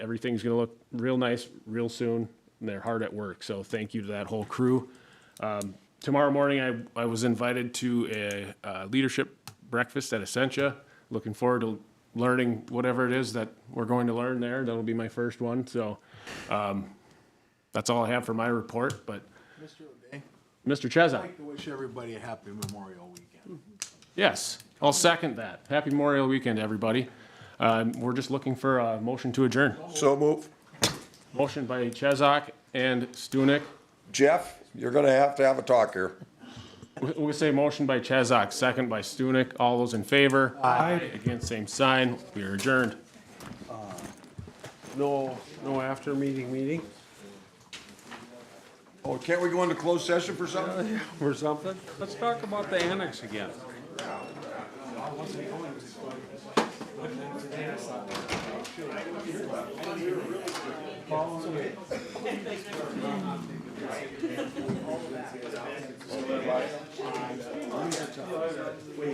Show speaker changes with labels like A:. A: Everything's going to look real nice real soon, and they're hard at work. So thank you to that whole crew. Um, tomorrow morning, I, I was invited to a, uh leadership breakfast at Essentia. Looking forward to learning whatever it is that we're going to learn there. That'll be my first one. So um, that's all I have for my report. But
B: Mr. O'Day,
A: Mr.
B: I'd
A: Chesa,
B: like to wish everybody a happy Memorial Weekend.
A: yes, I'll second that. Happy Memorial Weekend, everybody. Um, we're just looking for a motion to adjourn.
C: So move.
A: Motion by Chazak and Stunek.
C: Jeff, you're gonna have to have a talk here.
A: We- We say motion by Chazak, second by Stunek. All those in favor? Aye. Against, same sign. We are adjourned.
D: Uh, No, no after meeting meeting
C: Oh, can't we go into closed session for something?
D: or something? Let's talk about the annex again.